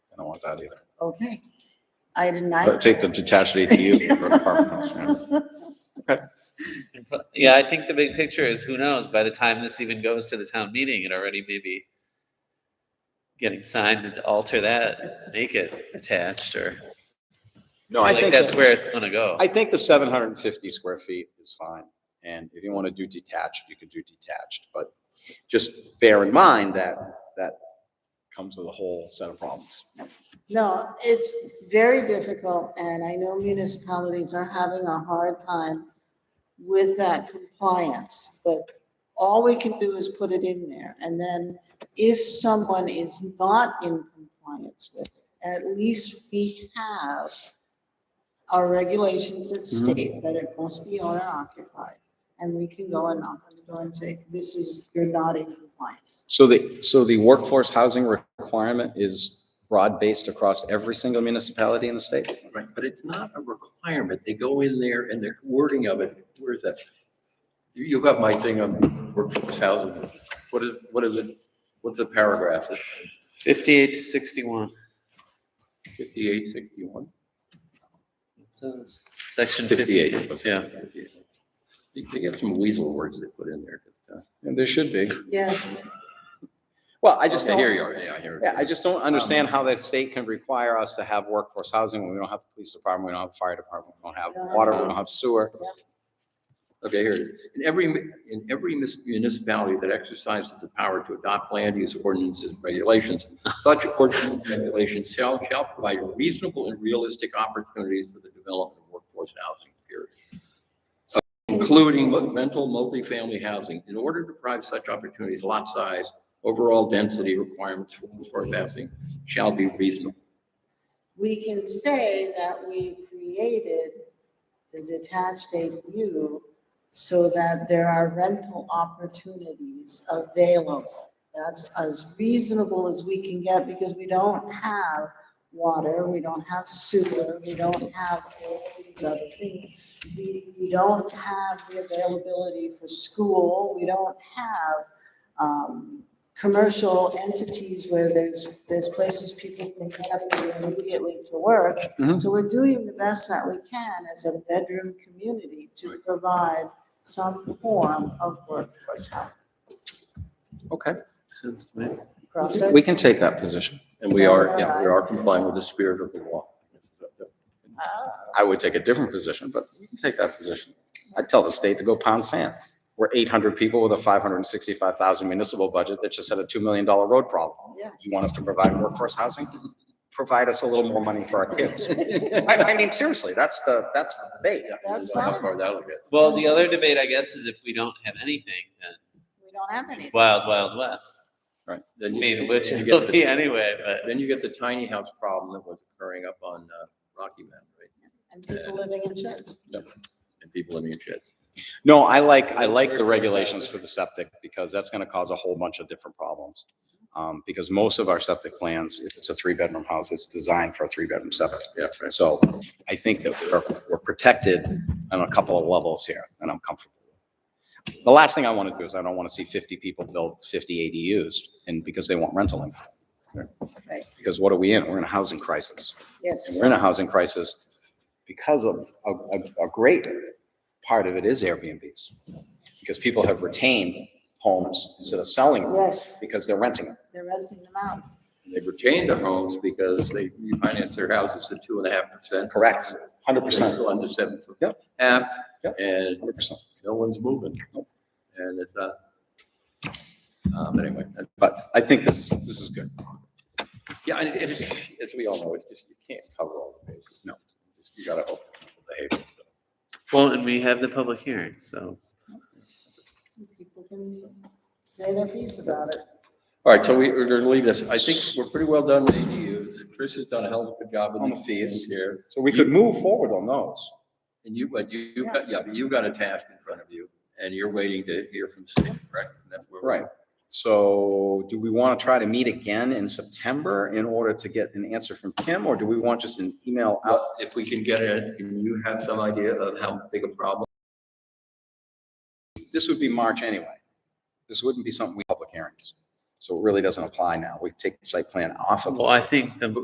want that either. Okay. Item nine. But take the detached ADU for an apartment house, yeah. Yeah, I think the big picture is who knows, by the time this even goes to the town meeting, it already may be getting signed to alter that, make it attached or, No, I think that's where it's gonna go. I think the seven hundred and fifty square feet is fine, and if you want to do detached, you can do detached, but just bear in mind that, that comes with a whole set of problems. No, it's very difficult, and I know municipalities are having a hard time with that compliance, but all we can do is put it in there, and then if someone is not in compliance with it, at least we have our regulations that Mhm. state that it must be owner occupied, and we can go and knock on the door and say, this is, you're not in compliance. So the, so the workforce housing requirement is broad-based across every single municipality in the state? Right, but it's not a requirement. They go in there and their wording of it, where is that? You, you got my thing on workforce housing. What is, what is it? What's the paragraph? It's Fifty-eight to sixty-one, fifty-eight, sixty-one? it says, section fifty-eight, Fifty-eight. yeah. They they got some weasel words they put in there. but, uh, And there should be. Yeah, Well, I just okay, don't, Here you are, yeah, here. it yeah, I is. just don't understand how that state can require us to have workforce housing when we don't have a police department, we don't have a fire department, we don't have water, we don't have sewer. Okay, here it is. In every, in every mis- municipality that exercises the power to adopt land use ordinances, and regulations, such ordinances and regulations shall, shall provide reasonable and realistic opportunities for the development of workforce housing, period. Including rental multifamily housing. In order to provide such opportunities, lot size, overall density requirements for workforce housing shall be reasonable. we can say that we created the detached ADU so that there are rental opportunities available. That's as reasonable as we can get because we don't have water, we don't have sewer, we don't have all these other things. We, we don't have the availability for school, we don't have, um, commercial entities where there's, there's places people can get up and go immediately to work. Mhm. So we're doing the best that we can as a bedroom community to provide some form of workforce housing. Okay, Sounds to me. Crossroads? we can take that position. And we are, yeah, we are complying with the spirit of the law. Ah, I would take a different position, but we can take that position. I'd tell the state to go pound sand. We're eight hundred people with a five hundred and sixty-five thousand municipal budget that just had a two million dollar road problem. Oh, Yes. You want us to provide workforce housing? Provide us a little more money for our kids. I, I mean, seriously, that's the, that's the debate. That's How fine. far that'll get. Well, the other debate, I guess, is if we don't have anything, then We don't have any. it's wild, wild west. I Then you- mean, which then you it'll get the- be anyway, but Then you get the tiny house problem that was occurring up on uh, Rocky Mountain, right? And people living in sheds. And people living in sheds. No, I like, I like the regulations for the septic because that's gonna cause a whole bunch of different problems. Um, because most of our septic plans, if it's a three-bedroom house, it's designed for a three-bedroom septic. Yeah, And So I think that we're, we're protected on a couple of levels here, and I'm comfortable. The last thing I want to do is I don't want to see 50 people build 50 ADUs, and because they want rental income. Right. Because what are we in? We're in a housing crisis. And Yes. we're in a housing crisis because of, a, a- a great part of it is Airbnbs. Because people have retained homes instead of selling them Yes. because they're renting them. They're renting them out. They retained their homes because they refinanced their houses at two and a half percent. Correct, 100%, Still under seven foot. Yep. Half, Yep. and 100%. no one's moving. And it's, uh, um, anyway, that- But I think this, this is good. yeah, and it is, as we all know, it's just, you can't cover all the bases. No. Just, You gotta hope people behave. well, and we have the public hearing, so. People can say their piece about it. All right, so we, we're gonna leave this. I think we're pretty well done with ADUs. Chris has done a hell of a good job On in the the fees. fees here. So we could move forward on those. And you, but you, Yeah. you've got, yeah, but you've got a task in front of you and you're waiting to hear from Steve, correct? And that's where we're- Right. So do we want to try to meet again in September in order to get an answer from Kim, or do we want just an email out? Well, if we can get it, can you have some idea of how big a problem? This would be March anyway. This wouldn't be something we public hearings. So it really doesn't apply now. We take the site plan off of. Well, I think the